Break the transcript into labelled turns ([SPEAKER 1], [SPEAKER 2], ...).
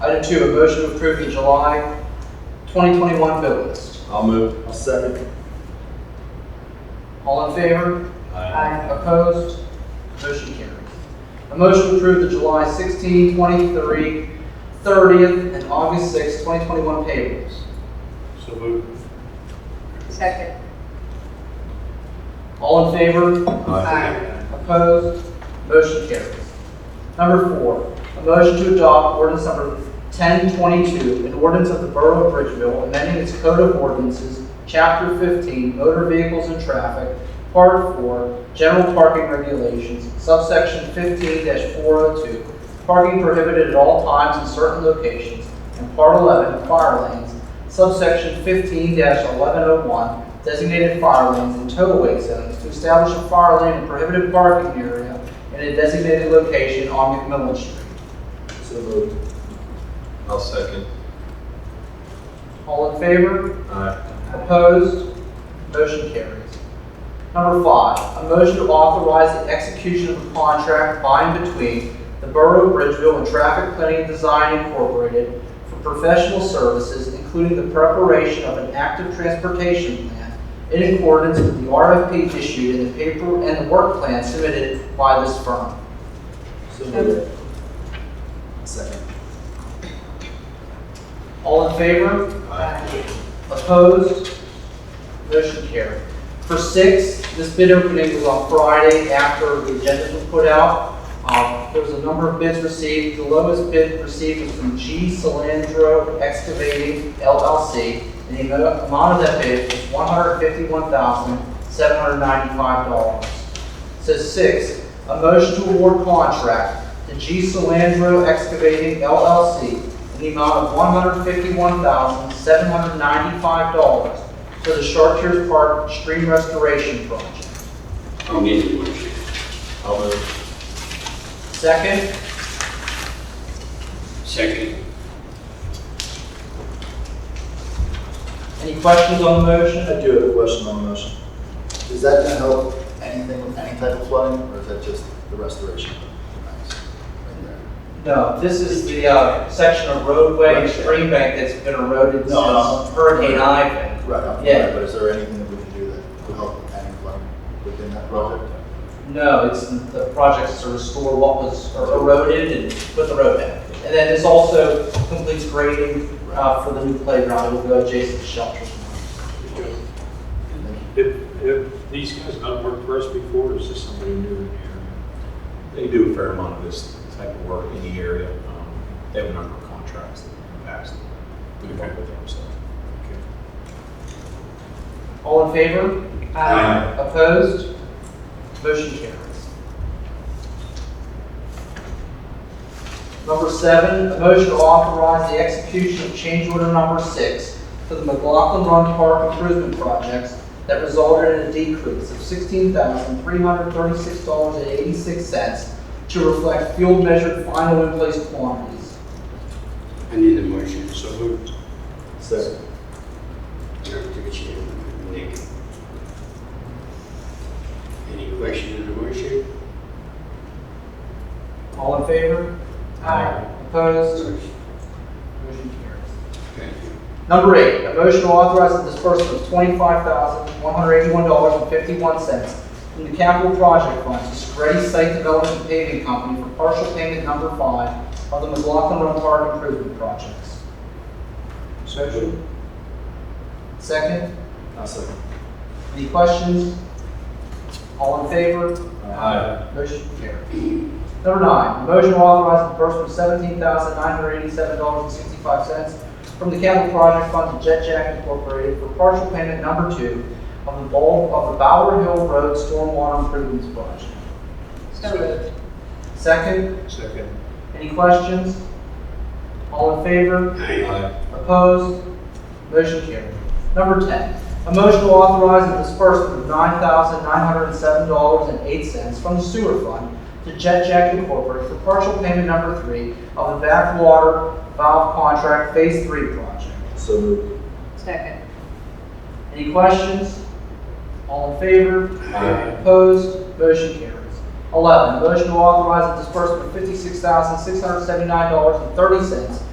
[SPEAKER 1] Item two, a motion to approve the July 2021 bill list.
[SPEAKER 2] I'll move. I'll second.
[SPEAKER 1] All in favor?
[SPEAKER 3] Aye.
[SPEAKER 1] Opposed? Motion carries. A motion to approve the July 16, 23, 30th, and August 6, 2021 payrolls.
[SPEAKER 2] So move.
[SPEAKER 3] Second.
[SPEAKER 1] All in favor?
[SPEAKER 3] Aye.
[SPEAKER 1] Opposed? Motion carries. Number four, a motion to adopt ordinance number 1022, an ordinance of the Borough of Bridgeville amending its code of ordinances, Chapter 15, Motor Vehicles and Traffic, Part 4, General Parking Regulations, subsection 15-402, parking prohibited at all times in certain locations, and Part 11, fire lanes, subsection 15-1101, designated fire lanes and tow-away zones to establish a fire lane and prohibited parking area in a designated location on McMillan Street.
[SPEAKER 2] So move. I'll second.
[SPEAKER 1] All in favor?
[SPEAKER 2] Aye.
[SPEAKER 1] Opposed? Motion carries. Number five, a motion to authorize the execution of a contract by and between the Borough of Bridgeville and Traffic Planning and Design Incorporated for professional services, including the preparation of an active transportation plan in accordance with the RFP issued and the paper and the work plan submitted by this firm.
[SPEAKER 2] So
[SPEAKER 3] moved.
[SPEAKER 2] Second.
[SPEAKER 1] All in favor?
[SPEAKER 3] Aye.
[SPEAKER 1] Opposed? Motion carried. For six, this bid opening was on Friday after the agendas were put out. Um, There was a number of bids received. The lowest bid received was from G. Solandro Excavating LLC, and the amo- amount of that bid was one hundred fifty-one thousand, seven hundred ninety-five dollars. So six, a motion to award contract to G. Solandro Excavating LLC in the amount of one hundred fifty-one thousand, seven hundred ninety-five dollars for the Chartiers Park Stream Restoration Project.
[SPEAKER 4] I'll make the motion.
[SPEAKER 2] I'll move.
[SPEAKER 1] Second,
[SPEAKER 4] Second.
[SPEAKER 1] any questions on the motion?
[SPEAKER 5] I do have a question on the motion. Is that gonna help anything with any type of flooding, or is that just the restoration? Nice. Right there.
[SPEAKER 1] No, this is the, uh, section of roadway and stream bank that's been eroded
[SPEAKER 5] No, no.
[SPEAKER 1] since Hurricane Ivan.
[SPEAKER 5] Right, I'm
[SPEAKER 1] Yeah.
[SPEAKER 5] aware, but is there anything that we can do that would help any flooding within that project?
[SPEAKER 1] No, it's the projects to restore what was eroded and put the road back. And then this also completes grading, uh, for the new playground, it will go adjacent to shelter.
[SPEAKER 6] If, if these guys have not worked for us before, is this somebody new in here?
[SPEAKER 2] They do a fair amount of this type of work in the area. Um, They have a number of contracts that have passed. We can work with them, so.
[SPEAKER 1] All in favor?
[SPEAKER 3] Aye.
[SPEAKER 1] Opposed? Motion carries. Number seven, a motion to authorize the execution of change order number six for the McLaughlin Run Park improvement projects that resulted in a decrease of sixteen thousand three hundred thirty-six dollars and eighty-six cents to reflect field measured final in place quantities.
[SPEAKER 4] I need the motion.
[SPEAKER 6] So moved.
[SPEAKER 5] So,
[SPEAKER 4] Director Chair, Nick. Any questions on the motion?
[SPEAKER 1] All in favor?
[SPEAKER 6] Aye.
[SPEAKER 1] Opposed?
[SPEAKER 4] Motion.
[SPEAKER 1] Motion carries.
[SPEAKER 4] Thank you.
[SPEAKER 1] Number eight, a motion to authorize the disbursement of twenty-five thousand, one hundred eighty-one dollars and fifty-one cents from the capital project fund to Segretti Site Development Paving Company for partial payment number five of the McLaughlin Run Park Improvement Projects.
[SPEAKER 6] Second.
[SPEAKER 1] Second,
[SPEAKER 5] I'll second.
[SPEAKER 1] any questions? All in favor?
[SPEAKER 2] Aye.
[SPEAKER 1] Motion carried. Number nine, a motion to authorize the disbursement of seventeen thousand, nine hundred eighty-seven dollars and sixty-five cents from the capital project fund to Jet Jack Incorporated for partial payment number two of the bulk of the Bower Hill Road Stormwater Improvements Project.
[SPEAKER 3] So moved.
[SPEAKER 1] Second,
[SPEAKER 6] Second.
[SPEAKER 1] any questions? All in favor?
[SPEAKER 2] Aye.
[SPEAKER 1] Opposed? Motion carried. Number 10, a motion to authorize the disbursement of $9,907.08 from the sewer fund to Jet Jack Incorporated for partial payment number three of the backwater valve contract Phase 3 project.
[SPEAKER 5] So moved.
[SPEAKER 3] Second.
[SPEAKER 1] Any questions? All in favor?
[SPEAKER 4] Aye.
[SPEAKER 1] Opposed? Motion carries. 11, a motion to authorize the disbursement of $56,679.30